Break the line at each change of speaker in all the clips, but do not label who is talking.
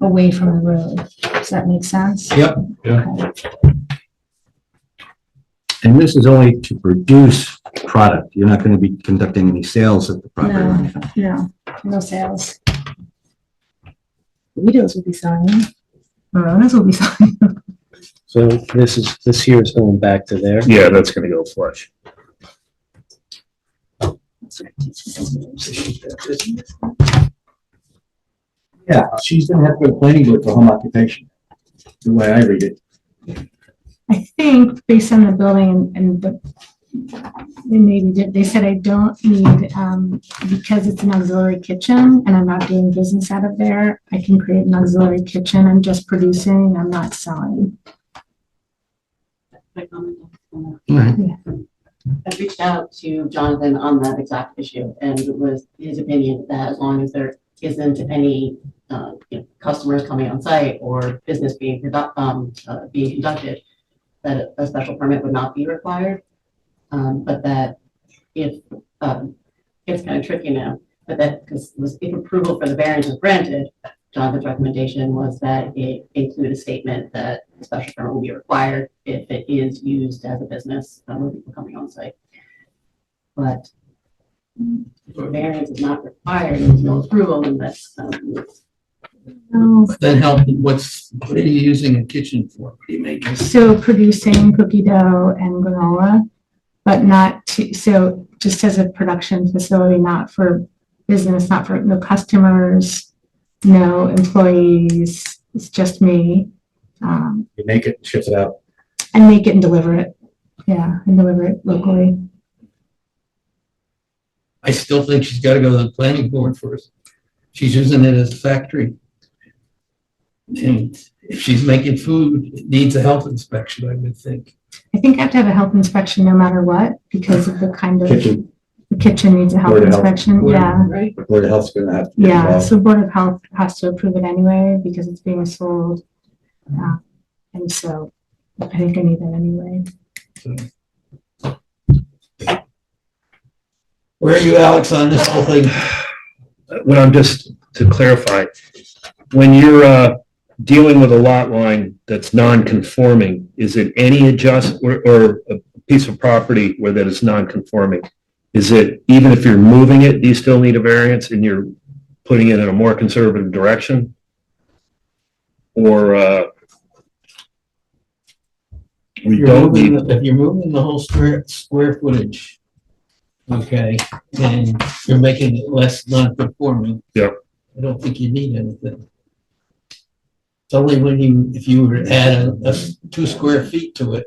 away from the road. Does that make sense?
Yep.
Yeah.
Okay.
And this is only to produce product. You're not going to be conducting any sales at the property. or
No.
anything.
No, no sales. Burritos will be selling. Moronas will be selling.
So this is, this here is going back to there.
Yeah, that's gonna go flush.
Yeah, she's gonna have to go to planning board for home occupation, the way I read it.
I think based on the building and the, they maybe did, they said I don't need, um, because it's an auxiliary kitchen and I'm not doing business out of there, I can create an auxiliary kitchen. I'm just producing, I'm not selling.
quick comment on that.
All right.
I reached out to Jonathan on that exact issue and it was his opinion that as long as there isn't any, uh, you know, customers coming on site or business being, produ- um, uh, being conducted, that a special permit would not be required. Um, but that if, um, it's kind of tricky now, but that, because was, if approval for the variance is granted, Jonathan's recommendation was that it include a statement that a special permit will be required if it is used as a business, uh, with people coming on site. But if a variance is not required, there's no approval, then that's, um,
No.
Then help, what's, what are you using a kitchen for? What are you making?
So producing cookie dough and granola, but not to, so just as a production facility, not for business, not for, no customers, no employees, it's just me. Um,
You make it, shift it out.
and make it and deliver it. Yeah, and deliver it locally.
I still think she's gotta go to the planning board first. She's using it as a factory. And if she's making food, it needs a health inspection, I would think.
I think I have to have a health inspection no matter what because of the kind of
Kitchen,
the kitchen needs a health
Board of Health.
inspection.
Board of-
Yeah.
Right.
the board of health's gonna have. to be
Yeah,
involved.
so Board of Health has to approve it anyway because it's being sold. Uh, And so I think I need that anyway.
Where are you, Alex, on this whole thing?
When I'm just to clarify, when you're, uh, dealing with a lot line that's non-conforming, is it any adjust or, or a piece of property where that is non-conforming? Is it, even if you're moving it, do you still need a variance and you're putting it in a more conservative direction? Or, uh, we
You're
don't
moving
need,
the- If you're moving the whole square, square footage, okay, and you're making it less non-conforming.
Yeah.
I don't think you need anything. It's only when you, if you were to add a, a two square feet to it,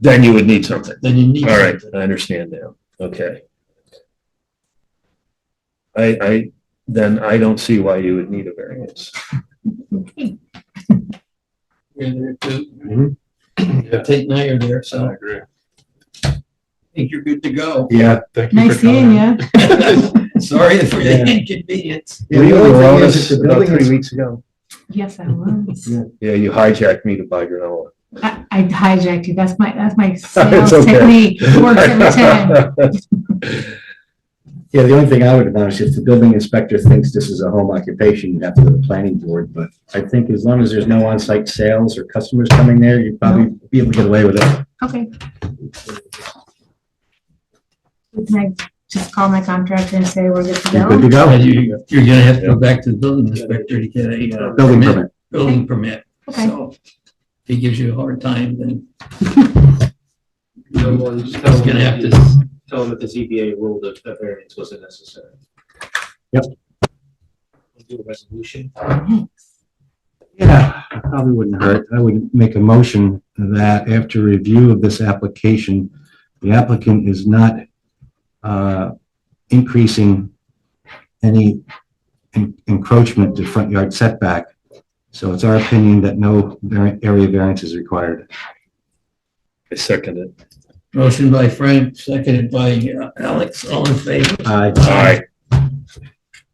then you would need something.
then you need.
All right,
something.
I understand now. Okay. I, I, then I don't see why you would need a variance.
You're there too.
Mhm.
Take now you're there, so I
agree.
think you're good to go.
Yeah.
Nice seeing you.
Sorry for the
Yeah.
inconvenience.
The
Were you
only
around
thing
us
is, if the
about
building
three
is-
weeks ago?
Yes, I was.
Yeah, you hijacked me to buy granola.
I I hijacked you. That's my, that's my sales
okay.
technique. Works every time.
Yeah, the only thing I would announce, if the building inspector thinks this is a home occupation, you'd have to go to the planning board, but I think as long as there's no on-site sales or customers coming there, you'd probably be able to get away with it.
Okay. Can I just call my contractor and say we're good to
You're good to
go?
go.
You, you're gonna have to go back to the building inspector to get a. uh,
Building permit.
Building permit.
Okay.
So if he gives you a hard time, then
No more, just tell
he's
them
gonna have
that
to,
the- Tell them that the ZBA ruled that that variance wasn't necessary.
Yep.
Do a resolution.
Yeah, it probably wouldn't hurt. I would make a motion that after review of this application, the applicant is not uh, increasing any en- encroachment to front yard setback. So it's our opinion that no var- area variance is required.
I second it.
motion by Frank, seconded by uh, Alex, all in favor.
Aye.
All right.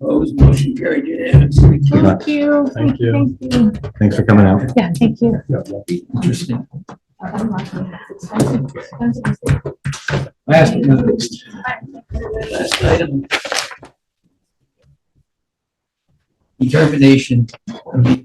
Opposed, motion carried unanimously.
Good luck.
Thank you.
Thank you.
Thank you.
Thanks for coming out.
Yeah, thank you.
Interesting.
Last but not least.
Last item. Determination of the